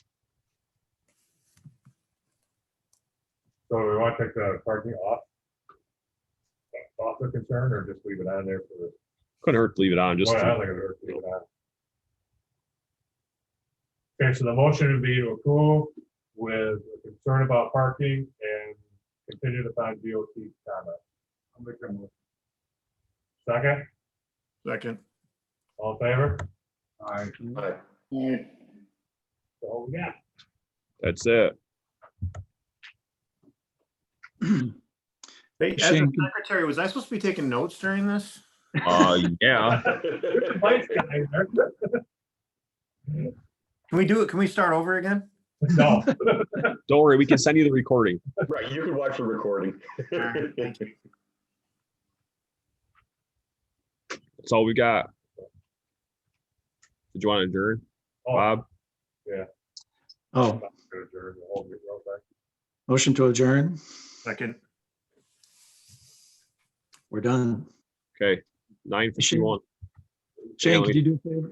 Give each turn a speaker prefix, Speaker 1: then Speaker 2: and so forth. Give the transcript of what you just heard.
Speaker 1: So we want to take the parking off? Off the concern or just leave it on there for the?
Speaker 2: Couldn't hurt to leave it on, just,
Speaker 1: Well, I don't
Speaker 2: to-
Speaker 1: think it hurts to leave it on. Okay, so the motion would be to approve with a concern about parking and contingent upon DOT comment. I'll make that motion. Second,
Speaker 3: Second.
Speaker 1: all in favor? Aye.
Speaker 3: Aye.
Speaker 1: So, yeah,
Speaker 2: that's it.
Speaker 3: Hey, as a
Speaker 4: Shane,
Speaker 3: secretary, was I supposed to be taking notes during this?
Speaker 2: Uh, yeah,
Speaker 1: You're the vice guy, Eric.
Speaker 3: Can we do it? Can we start over again?
Speaker 1: No,
Speaker 2: don't worry, we can send you the recording.
Speaker 5: Right, you can watch the recording.
Speaker 3: Alright, thank
Speaker 2: That's all we got. Did you want to adjourn,
Speaker 1: oh,
Speaker 2: Bob?
Speaker 4: Oh,
Speaker 1: okay.
Speaker 4: motion to adjourn.
Speaker 3: Second.
Speaker 4: We're done.
Speaker 2: Okay, nine fifty-one.
Speaker 4: Shane, could you do a favor?